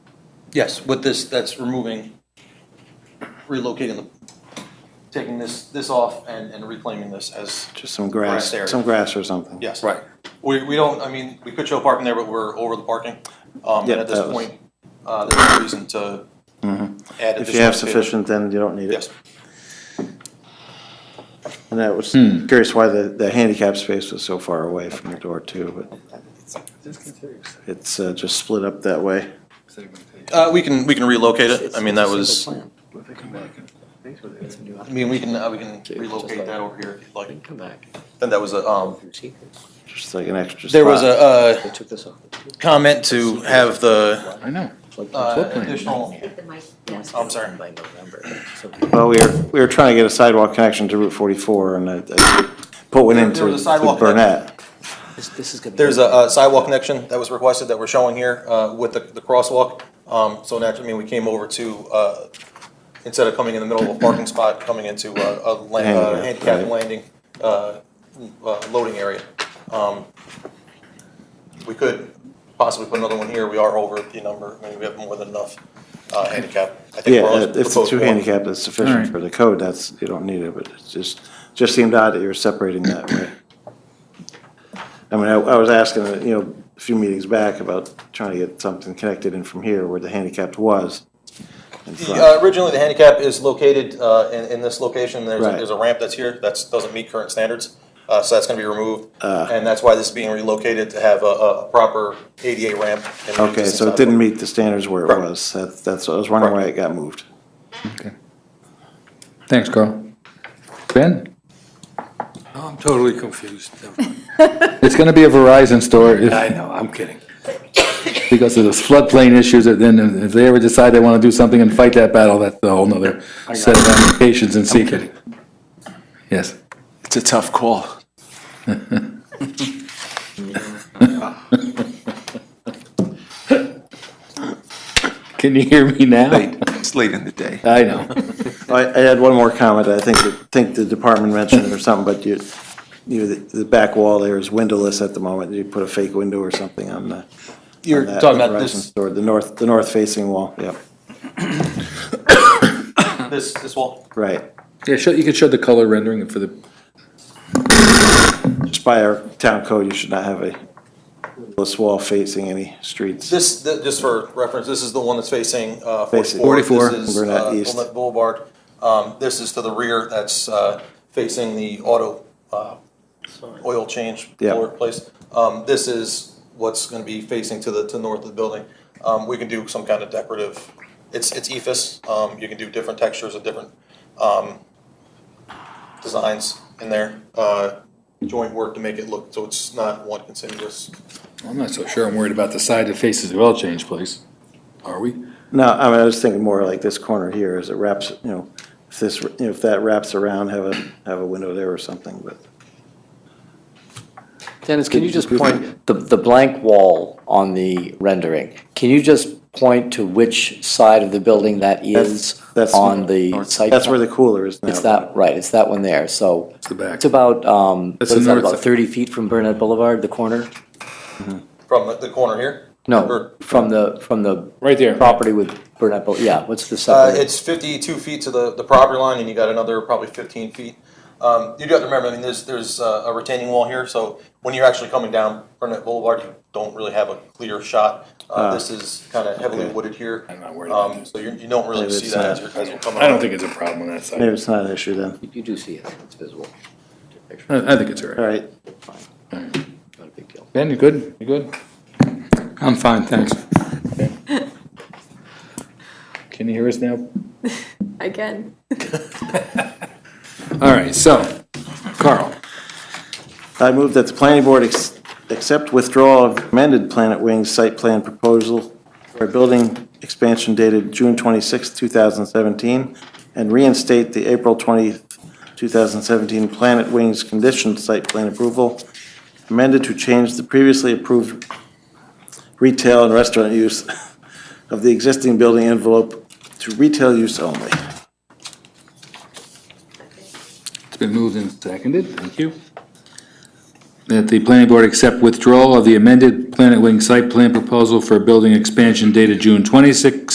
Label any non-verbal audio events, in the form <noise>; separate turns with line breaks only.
Yes, with this, that's removing, relocating the, taking this, this off and, and reclaiming this as,
Just some
Grass area.
grass, some grass or something.
yes. Right. We, we don't, I mean, we could show parking there, but we're over the parking. Um, and
Yeah,
at this
that was- Mm-hmm.
point, uh, there's no reason to add additional.
If you have
space.
sufficient, then you don't need it.
Yes.
And I was curious why the, the handicap space was so far away from the door too, but it's uh, just split up that way.
Uh, we can, we can relocate it. I mean, that was, I
Relocate
mean, we can, uh, we can relocate that over here if you'd like.
Come back.
And that was a, um,
Just like an extra spot.
there was a, uh,
They took this off.
comment to have the,
I know.
uh, additional,
Hit the mic, yes.
I'm sorry. Uh,
By November. So
Well, we were, we were trying to get a sidewalk connection to Route forty-four and I- I put one
There-
into
there was a sidewalk
with Burnett.
This, this is gonna be.
There's a uh, sidewalk connection that was requested that we're showing here uh, with the the crosswalk. Um, So naturally, I mean, we came over to, uh, instead of coming in the middle of a parking spot, coming into a- a la- uh,
Handicap,
handicap
right.
landing, uh, uh, loading area. Um, We could possibly put another one here. We are over the number. I mean, we have more than enough uh, handicap. I think
Yeah,
we're on
uh, if the
proposed
two
one.
handicap is sufficient
Alright.
for the code, that's, you don't need it, but it just, just seemed odd that you were separating that way. I mean, I, I was asking, uh, you know, a few meetings back about trying to get something connected in from here where the handicapped was. in
The,
front.
uh, Originally, the handicap is located uh, in in this location. There's a-
Right.
there's a ramp that's here that doesn't meet current standards, uh, so that's going to be removed.
Uh.
And that's why this is being relocated to have a- a proper ADA ramp. in the
Okay,
existing
so it
sidewalk.
didn't meet the standards where it
Correct.
was, that's, that's, I was wondering why it got moved.
Okay. Thanks, Carl. Ben,
I'm totally confused.
it's gonna be a Verizon store
I
if,
know, I'm kidding.
because of those floodplain issues, that then if they ever decide they wanna do something and fight that battle, that's a whole nother set of ramifications and secret. Yes.
It's a tough call.
Can you hear me now?
It's late in the day.
I know.
I, I had one more comment, I think, I think the department mentioned it or something, but you, you, the the back wall there is windowless at the moment, you put a fake window or something on the.
You're
on that
talking about
Verizon
this,
store, The north, the north facing wall, yep,
this, this wall?
right,
<laughs> Yeah, show, you could show the color rendering for the,
just by our town code, you should not have a windowless wall facing any streets.
This, th- just for reference, this is the one that's facing uh,
Facing-
44.
44,
This is
Burnett
uh,
East.
Wilmette Boulevard. Um, This is to the rear, that's uh, facing the auto uh, oil change
Yeah.
floor place. Um, This is what's going to be facing to the, to the north of the building. Um, We can do some kind of decorative, it's, it's EFS, Um, you can do different textures of different um, designs in there. Uh, Joint work to make it look, so it's not one continuous.
I'm not so sure I'm worried about the side that faces the oil change place. Are we?
No, I mean, I was thinking more like this corner here, as it wraps, you know, if this, you know, if that wraps around, have a, have a window there or something, but.
Dennis, can you just point, the, the blank wall on the rendering, can you just point to which side of the building that is
That's-
on the site?
That's
plan?
where the cooler is now.
It's that, right, it's that one there, so. It's
the back.
It's about, um, what
That's the
is that,
north
about
side.
thirty feet from Burnett Boulevard, the corner?
From the- the corner here?
No,
Or-
from the, from the.
Right there.
Property with Burnett Boulevard, yeah, what's the
Uh,
separate?
it's fifty-two feet to the, the property line, and you got another probably fifteen feet. Um, you do have to remember, I mean, there's, there's uh, a retaining wall here, so when you're actually coming down Burnett Boulevard, you don't really have a clear shot. Uh, this is kind of heavily
Ah. okay.
wooded here.
I'm not worried about
Um,
this.
so you, you don't really
Maybe
see
it's
that
not-
as you're, as you're coming.
I don't
up.
think it's a problem on that side.
Maybe it's not an issue then.
You do see it, it's visible. Picture,
I, I think it's all right.
All right,
Not a big deal.
Ben, you good? You good? I'm fine, thanks. <laughs> Can you hear us now?
Again.
All right, so, Carl,
I move that the planning board ex- accept withdrawal of amended Planet Wings site plan proposal for a building expansion dated June twenty sixth, two 2017, and reinstate the April twenty, 2017 Planet Wings conditioned site plan approval amended to change the previously approved retail and restaurant use of the existing building envelope to retail use only.
it's been moved and seconded, thank you. That the planning board accept withdrawal of the amended Planet Wing site plan proposal for building expansion dated June 26,